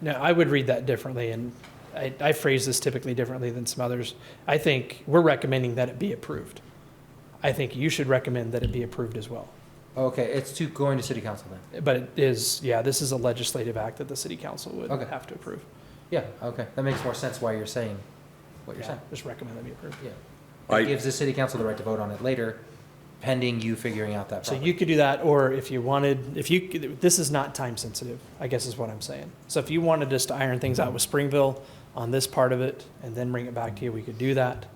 No, I would read that differently, and I, I phrase this typically differently than some others. I think we're recommending that it be approved. I think you should recommend that it be approved as well. Okay, it's to going to city council then. But it is, yeah, this is a legislative act that the city council would Okay. have to approve. Yeah, okay, that makes more sense why you're saying what you're Yeah, saying. Just recommend that be approved. It I, gives the city council the right to vote on it later, pending you figuring out that So problem. you could do that, or if you wanted, if you, could- this is not time sensitive, I guess is what I'm saying. So if you wanted us to iron things out with Springville on this part of it and then bring it back to you, we could do that.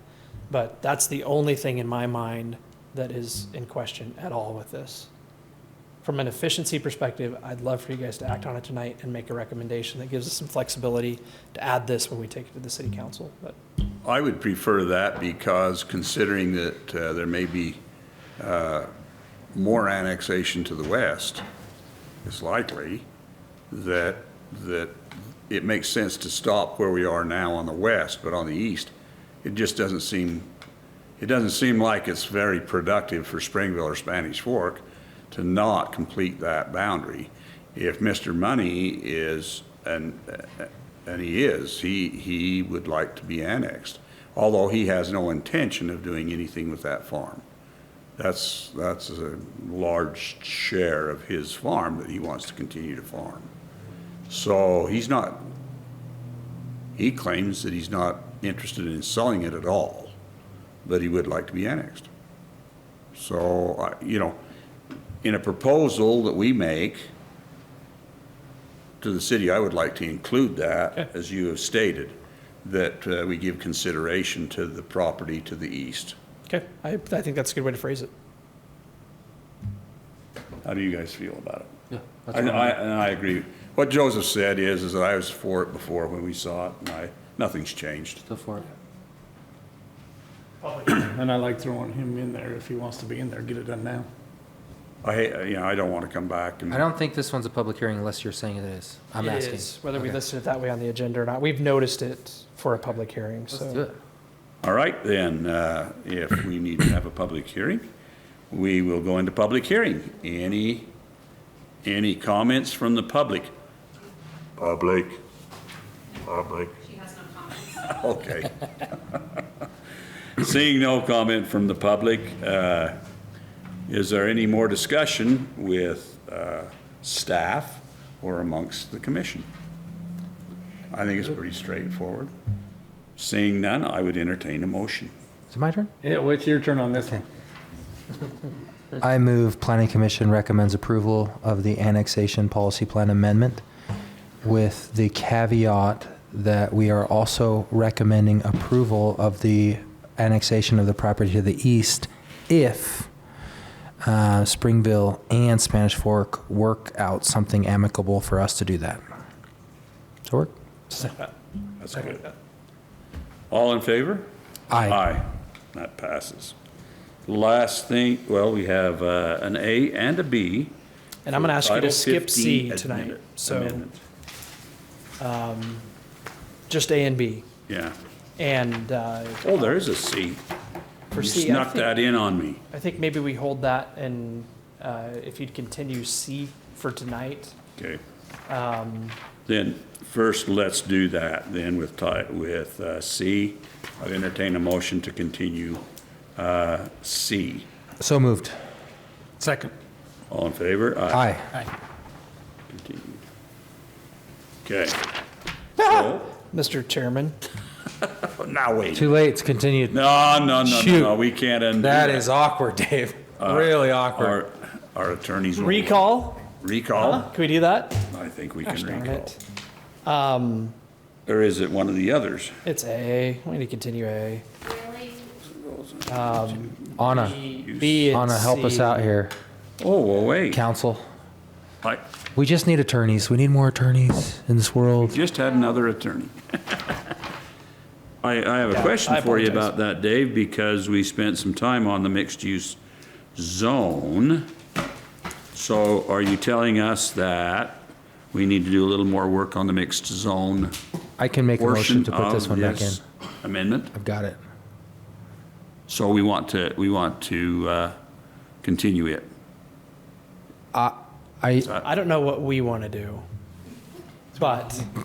But that's the only thing in my mind that is in question at all with this. From an efficiency perspective, I'd love for you guys to act on it tonight and make a recommendation that gives us some flexibility to add this when we take it to the city council, but. I would prefer that because considering that uh, there may be uh, more annexation to the west, it's likely that, that it makes sense to stop where we are now on the west, but on the east, it just doesn't seem, it doesn't seem like it's very productive for Springville or Spanish Fork to not complete that boundary. If Mr. Money is, and, and he is, he, he would like to be annexed, although he has no intention of doing anything with that farm. That's, that's a large share of his farm that he wants to continue to farm. So he's not, he claims that he's not interested in selling it at all, but he would like to be annexed. So, I- you know, in a proposal that we make to the city, I would like to include that, as you have stated, that uh, we give consideration to the property to the east. Okay, I, I think that's a good way to phrase it. How do you guys feel about it? Yeah, that's And fine. I, and I agree. What Joseph said is, is that I was for it before when we saw it, and I, nothing's changed. Go for it. And I like throwing him in there if he wants to be in there, get it done now. I, hate- you know, I don't want to come back I and, don't think this one's a public hearing unless you're saying it is. I'm It asking. is, Whether we Okay. listed it that way on the agenda or not, we've noticed it for a public hearing, so. Let's do it. all right, then, uh, if we need to have a public hearing, we will go into public hearing. Any, any comments from the public? Public. Public. She has no comment. Okay. Seeing no comment from the public, uh, is there any more discussion with uh, staff or amongst the commission? I think it's pretty straightforward. Seeing none, I would entertain a motion. Is it my turn? Yeah, well, it's your turn on this one. I move Planning Commission recommends approval of the annexation policy plan amendment with the caveat that we are also recommending approval of the annexation of the property to the east if uh, Springville and Spanish Fork work out something amicable for us to do that. Does it work? That's good. All in favor? Aye. Aye. That passes. Last thing, well, we have uh, an A and a B. And I'm going to ask you Title to skip C 15 tonight. amendment- So amendment. just A and B. Yeah. And uh, Oh, there is a C. for You C, I snuck think, that in on me. I think maybe we hold that and uh, if you'd continue C for tonight. Okay. Um, Then, first, let's do that then with ti, with uh, C. I'd entertain a motion to continue uh, C. So moved. Second. All in favor? Aye. Continue. Okay. So, Mr. Chairman, Oh, Now, wait. Too late. It's continued. No, no, no, no, no, Shoot. we can't undo That that. is awkward, Dave. Uh, Really awkward. Our, our attorneys. will- recall? Huh? Recall? Can we do that? I think we Gosh can darn recall. it. Um, Or is it one of the others? It's A. We need to continue A. Really? Anna, E, B and Anna, help us C. out here. Oh, well, wait. Council. I We just need attorneys. We need more attorneys in this world. just had another attorney. I, I have a Yeah, question I for you apologize. about that, Dave, because we spent some time on the mixed-use zone. So are you telling us that we need to do a little more work on the mixed zone I can make a motion portion to put this of one back in. this amendment? I've got it. So we want to, we want to uh, continue it. I, I don't know what we want to do, but